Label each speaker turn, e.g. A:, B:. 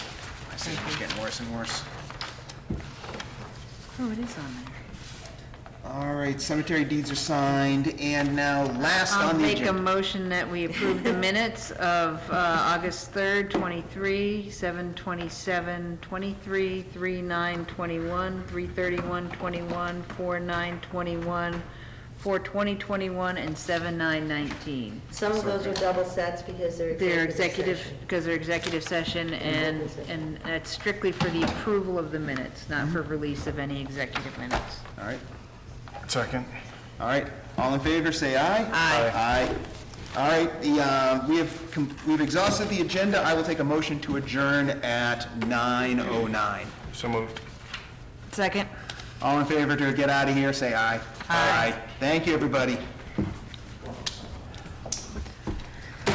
A: It's getting worse and worse.
B: Oh, it is on there.
A: All right, cemetery deeds are signed, and now last
B: I'll
A: on the
B: make a
A: agenda.
B: motion that we approve the minutes of uh, August 3rd, 23, 7:27, 23, 3:9, 21, 3:31, 21, 4:9, 21, 4:20, 21, and 7:9, 19.
C: Some of those are double sets because they're
B: They're
C: executive
B: executive,
C: session.
B: because they're executive session, and,
C: Executive
B: and that's strictly for the approval of the minutes, not for release of any executive minutes.
A: All right,
D: Second.
A: all right, all in favor, say aye. Aye. Aye. All right, the, uh, we have, com- we've exhausted the agenda. I will take a motion to adjourn at 9:09.
D: So moved.
B: Second?
A: All in favor to get out of here, say aye. Aye. Thank you, everybody.